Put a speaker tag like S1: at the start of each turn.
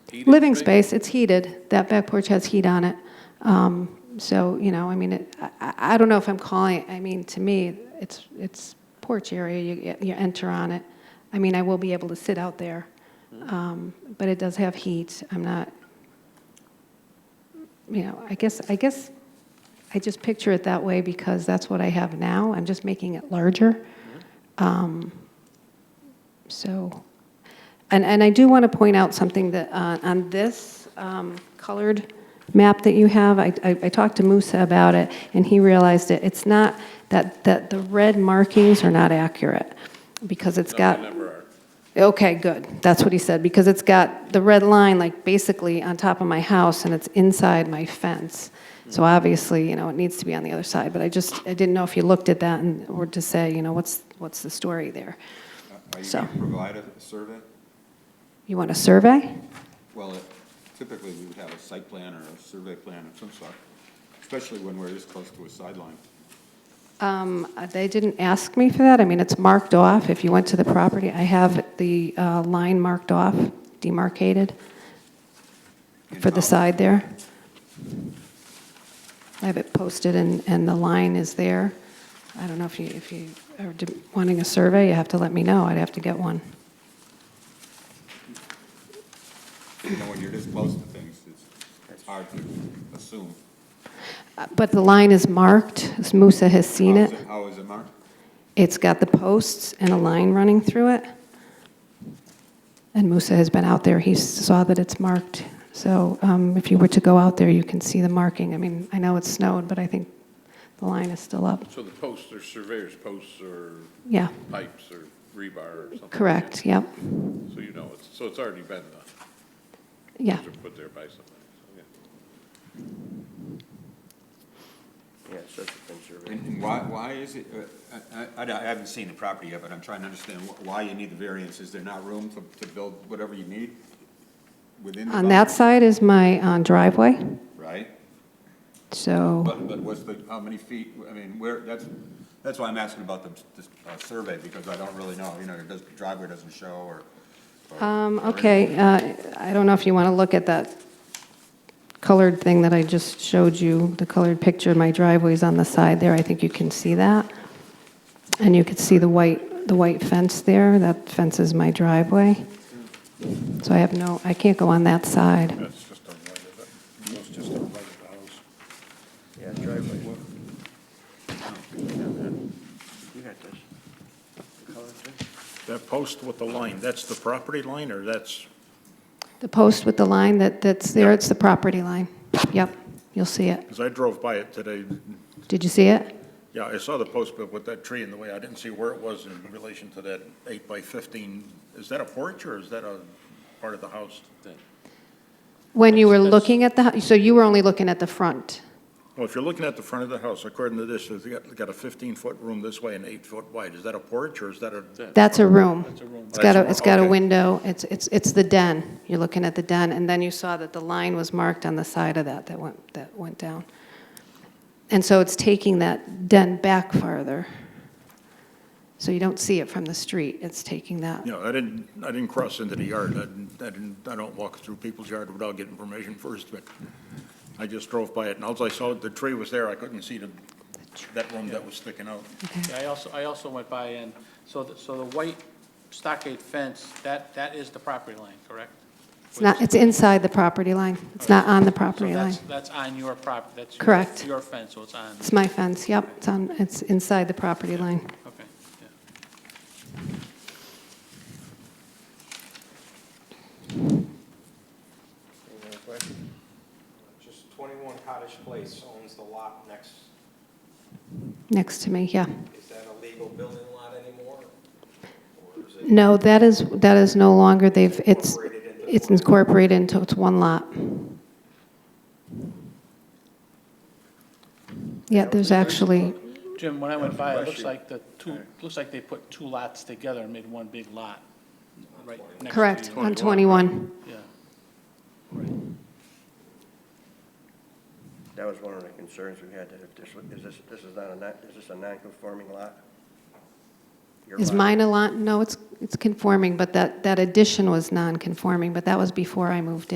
S1: heated?
S2: Living
S1: space?
S2: space, it's heated. That back porch has heat on it. Um, So, you know, I mean, it- I- I I don't know if I'm calling, I mean, to me, it's, it's porch area, you you enter on it. I mean, I will be able to sit out there, Um, but it does have heat. I'm not, you know, I guess, I guess, I just picture it that way because that's what I have now. I'm just making it larger. Um, So, and, and I do want to point out something that, uh, on this um, colored map that you have, I, I I talked to Musa about it, and he realized it, it's not, that, that the red markings are not accurate, because it's got. Okay, good. That's what he said, because it's got the red line, like, basically on top of my house, and it's inside my fence. So obviously, you know, it needs to be on the other side, but I just, I didn't know if you looked at that and, or to say, you know, what's, what's the story there?
S3: Uh, Are you
S2: So-
S3: going to provide a survey?
S2: You want a survey?
S3: Well, it- typically, we would have a site plan or a survey plan of some sort, especially when we're this close to a sideline.
S2: Um, uh, They didn't ask me for that. I mean, it's marked off. If you went to the property, I have the uh, line marked off, demarcated for the
S3: In-house.
S2: side there. I have it posted and, and the line is there. I don't know if you, if you are d- wanting a survey, you have to let me know. I'd have to get one.
S3: You know, when you're this close to things, it's, it's hard to assume.
S2: Uh, But the line is marked. Musa has seen
S3: How is
S2: it.
S3: How is it marked?
S2: It's got the posts and a line running through it. And Musa has been out there, he saw that it's marked. So um, if you were to go out there, you can see the marking. I mean, I know it's snowed, but I think the line is still up.
S1: So the posts are surveyors' posts or
S2: Yeah,
S1: pipes or rebar or something? like
S2: correct, yep,
S1: that. So you know, it's, so it's already been done,
S2: yeah.
S1: Those are put there by somebody, so, yeah.
S4: Yeah, such a thing, survey.
S3: And and why, why is it, uh, I, I I haven't seen the property yet, but I'm trying to understand wh- why you need the variance. Is there not room to, to build whatever you need within the
S2: On that
S3: boundary?
S2: side is my uh, driveway,
S3: Right?
S2: so,
S3: But, but what's the, how many feet, I mean, where, that's, that's why I'm asking about the, the uh, survey, because I don't really know, you know, it does, the driveway doesn't show, or. or-
S2: um,
S3: or
S2: okay, uh, I don't know if you want to look at that colored thing that I just showed you, the colored picture, my driveway's on the side there, I think you can see that. And you could see the white, the white fence there, that fence is my driveway. So I have no, I can't go on that side.
S1: That's just on right of it, that's just on right of the house.
S4: Yeah, driveway. You got this. The color thing?
S5: That post with the line, that's the property line, or that's,
S2: The post with the line that, that's there, it's the property line. Yep, you'll see it.
S5: because I drove by it today,
S2: Did you see it?
S5: yeah, I saw the post, but with that tree in the way, I didn't see where it was in relation to that eight by fifteen. Is that a porch, or is that a part of the house?
S2: When you were looking at the, hu- so you were only looking at the front?
S5: Well, if you're looking at the front of the house, according to this, it's got, got a fifteen-foot room this way and eight-foot wide. Is that a porch, or is that a?
S2: That's a room. It's got a,
S5: That's a-
S2: it's got a
S5: okay.
S2: window, it's, it's, it's the den. You're looking at the den, and then you saw that the line was marked on the side of that, that went, that went down. And so it's taking that den back farther. So you don't see it from the street, it's taking that.
S5: You know, I didn't, I didn't cross into the yard. I didn't, I didn't, I don't walk through people's yard without getting permission first, but I just drove by it, and alls I saw the tree was there, I couldn't see the, that room that was sticking out.
S6: Yeah, I also, I also went by and, so, the- so the white stockade fence, that, that is the property line, correct?
S2: It's not, it's inside the property line, it's not on the property
S6: So
S2: line.
S6: that's, that's on your property, that's. your-
S2: Correct.
S6: Your fence, so it's on,
S2: It's my fence, yep, it's on, it's inside the property line.
S6: okay, yeah.
S4: Any other questions?
S7: Just 21 Cottage Place owns the lot next,
S2: Next to me, yeah.
S7: is that a legal building lot anymore? Or is it
S2: No, that is, that is no longer, they've, it's,
S7: incorporated into?
S2: it's incorporated into, it's one lot. Yeah, there's actually,
S6: Jim, when I went by, it looks like the two, looks like they put two lots together and made one big lot. right next to
S2: correct,
S6: you.
S2: on 21.
S6: Yeah.
S4: That was one of the concerns we had, that if this, was- is this, this is not a, non- is this a non-conforming lot? Your
S2: Is
S4: lot.
S2: mine a lot? No, it's, it's conforming, but that, that addition was non-conforming, but that was before I moved in.